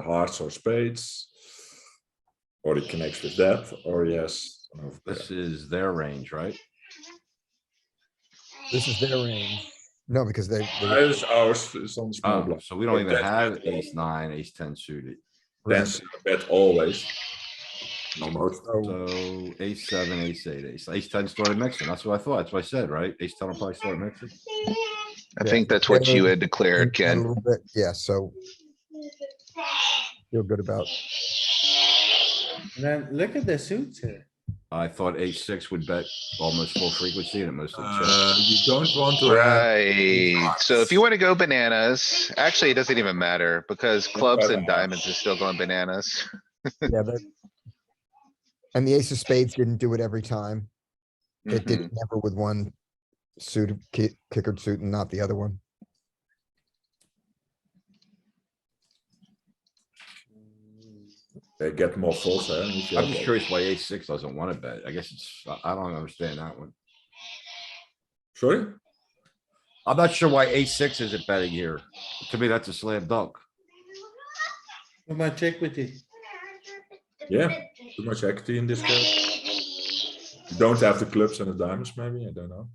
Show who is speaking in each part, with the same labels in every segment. Speaker 1: hearts or spades. Or it connects with that, or yes. no,
Speaker 2: This is their range, right?
Speaker 3: This is their range. No, because they. they-
Speaker 1: yeah. Ours, ours is on small
Speaker 2: Oh,
Speaker 1: blind.
Speaker 2: so we don't even
Speaker 1: That's
Speaker 2: have
Speaker 1: better.
Speaker 2: ace nine, ace ten suited.
Speaker 1: That's a bet always. Almost.
Speaker 3: So
Speaker 2: So ace seven, ace eight, ace, ace ten started mixing. That's what I thought. That's what I said, right? Ace ten will probably start mixing.
Speaker 4: I
Speaker 3: Yeah.
Speaker 4: think that's what you
Speaker 3: Yeah.
Speaker 4: had declared,
Speaker 3: a
Speaker 4: Ken.
Speaker 3: little bit, Yeah, so feel good about,
Speaker 5: And Then look at the suits here.
Speaker 2: I thought ace six would bet almost full frequency and it mostly
Speaker 1: Uh,
Speaker 2: checks.
Speaker 1: you don't want to have.
Speaker 4: Right, so if you wanna go bananas, actually, it doesn't even matter, because clubs and diamonds is still going bananas.
Speaker 3: yeah, but. And the ace of spades didn't do it every time. It did
Speaker 4: Mhm.
Speaker 3: never with one suited, ki- kickered suit and not the other one.
Speaker 1: They get more folds, huh? if you
Speaker 2: I'm
Speaker 1: have
Speaker 2: just
Speaker 1: a-
Speaker 2: curious why ace six doesn't want to bet. I guess it's, I- I don't understand that one.
Speaker 1: Sorry?
Speaker 2: I'm not sure why ace six isn't betting here. To me, that's a slam dunk.
Speaker 5: Come on, check with you.
Speaker 1: Yeah, too much equity in this game. You don't have the clubs and the diamonds, maybe, I don't know.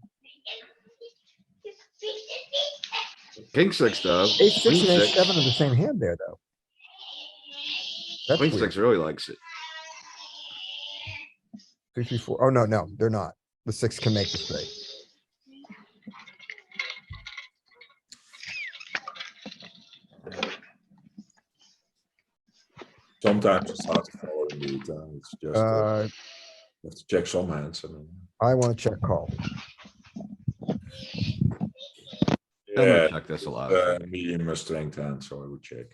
Speaker 2: King six though.
Speaker 3: Ace six
Speaker 2: queen
Speaker 3: and ace seven are the same hand there, though. That's
Speaker 2: Queen
Speaker 3: weird.
Speaker 2: six really likes it.
Speaker 3: Two, three, four. Oh, no, no, they're not. The six can make the straight.
Speaker 1: Sometimes it's hard to follow indeed, uh, it's just, uh,
Speaker 3: Uh,
Speaker 1: you have to check some hands, I mean.
Speaker 3: I want to check call.
Speaker 2: I'm gonna
Speaker 1: Yeah,
Speaker 2: check this a lot.
Speaker 1: uh, medium or strength hand, so I would check.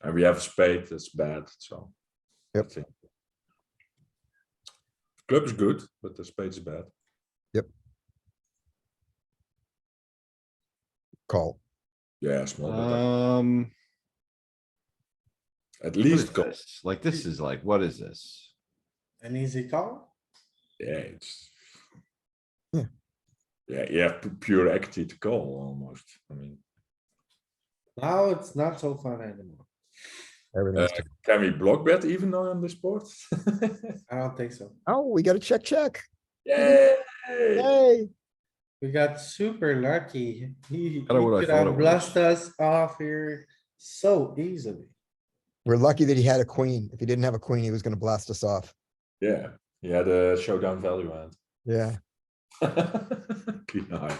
Speaker 1: And we have a spade, that's bad, so. I
Speaker 3: Yep.
Speaker 1: think- Club is good, but the spade's bad.
Speaker 3: Call.
Speaker 1: Yeah, small, bet.
Speaker 2: Um.
Speaker 1: at
Speaker 2: What is
Speaker 1: least, go-
Speaker 2: this? Like, this is like, what is this?
Speaker 5: An easy call?
Speaker 1: yeah, it's.
Speaker 3: Yeah.
Speaker 1: Yeah, you have pu- pure equity to call almost, I mean.
Speaker 5: Now it's not so fun anymore.
Speaker 3: Everything's.
Speaker 1: Uh, Can we block bet even though on this board?
Speaker 5: I don't think so.
Speaker 3: Oh, we got a check, check.
Speaker 1: Yay!
Speaker 3: Hey,
Speaker 5: We got super lucky. He he
Speaker 2: Kinda what I
Speaker 5: could
Speaker 2: thought it
Speaker 5: have
Speaker 2: was.
Speaker 5: blessed us off here so easily.
Speaker 3: we're lucky that he had a queen. If he didn't have a queen, he was gonna blast us off.
Speaker 1: Yeah, he had a showdown value hand.
Speaker 3: Yeah,
Speaker 1: Clean eye.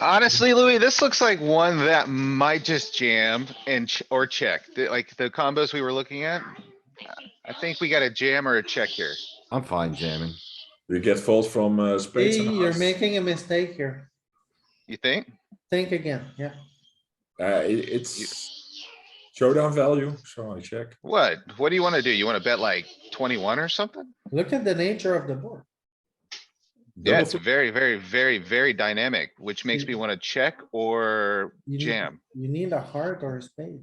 Speaker 4: Honestly, Louis, this looks like one that might just jam and, ch- or check, The- like the combos we were looking at. I think we got a jam or a check here.
Speaker 2: I'm fine jamming.
Speaker 1: We get fault from uh, spades
Speaker 5: Hey,
Speaker 1: and
Speaker 5: you're
Speaker 1: hearts.
Speaker 5: making a mistake here.
Speaker 4: You think?
Speaker 5: Think again, yeah.
Speaker 1: Uh, it- it's showdown value, so I check.
Speaker 4: What? What do you wanna do? You wanna bet like twenty-one or something?
Speaker 5: Look at the nature of the board.
Speaker 4: Yeah,
Speaker 1: Double
Speaker 4: it's very, very, very, very dynamic, which makes me wanna check or
Speaker 5: You need-
Speaker 4: jam.
Speaker 5: You need a heart or a spade.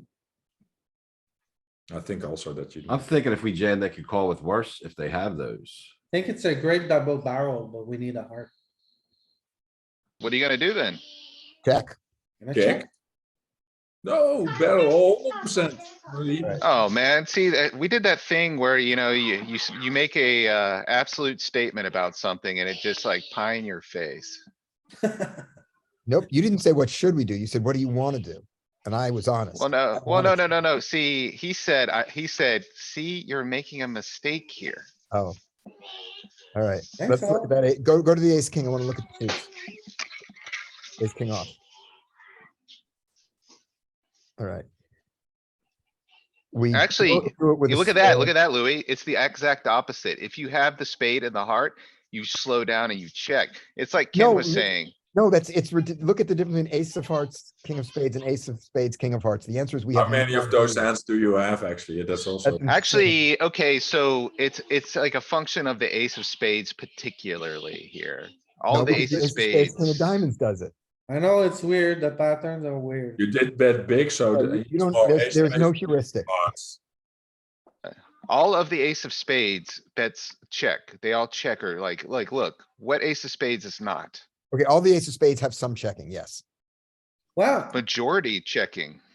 Speaker 1: I think also that you.
Speaker 2: I'm thinking if we jam, they could call with worse if they have those.
Speaker 5: Think it's a great double barrel, but we need a heart.
Speaker 4: What are you gonna do then?
Speaker 3: check.
Speaker 5: Gonna
Speaker 1: Check. No, barrel, hundred percent.
Speaker 4: Oh, man, see, that, we did that thing where, you know, you, you, s- you make a, uh, absolute statement about something and it just like pie in your face.
Speaker 3: Nope, you didn't say what should we do? You said, what do you wanna do? And I was honest.
Speaker 4: Well, no,
Speaker 3: I
Speaker 4: well, no,
Speaker 3: wanna
Speaker 4: no, no, no. See, he said, I, he said, see, you're making a mistake here.
Speaker 3: Oh. All right,
Speaker 5: Think
Speaker 3: let's look
Speaker 5: so?
Speaker 3: at that. eight- Go, go to the ace, king. I wanna look at the suits. Ace, king off. All right. We.
Speaker 4: Actually, You look at that, look at that, Louis. It's the exact opposite. If you have the spade and the heart, you slow down and you check. It's like
Speaker 3: No,
Speaker 4: Ken was
Speaker 3: you-
Speaker 4: saying.
Speaker 3: No, that's, it's, ridic- look at the difference between ace of hearts, king of spades and ace of spades, king of hearts. The answer is we have.
Speaker 1: How many of those hands do you have actually? That's also,
Speaker 3: That's-
Speaker 4: Actually, okay, so it's, it's like a function of the ace of spades particularly here. All
Speaker 3: No,
Speaker 4: the
Speaker 3: because
Speaker 4: ace of
Speaker 3: spades,
Speaker 4: spades.
Speaker 3: King of diamonds does it.
Speaker 5: I know it's weird, the patterns are weird.
Speaker 1: you did bet big, so.
Speaker 3: So
Speaker 1: the-
Speaker 3: You you don't,
Speaker 1: Oh,
Speaker 3: there's,
Speaker 1: ace,
Speaker 3: there's no
Speaker 1: ace,
Speaker 3: heuristic.
Speaker 1: hearts.
Speaker 4: All of the ace of spades bets check. They all check or like, like, look, what ace of spades is not?
Speaker 3: Okay, all the ace of spades have some checking, yes.
Speaker 5: Well,
Speaker 4: majority checking.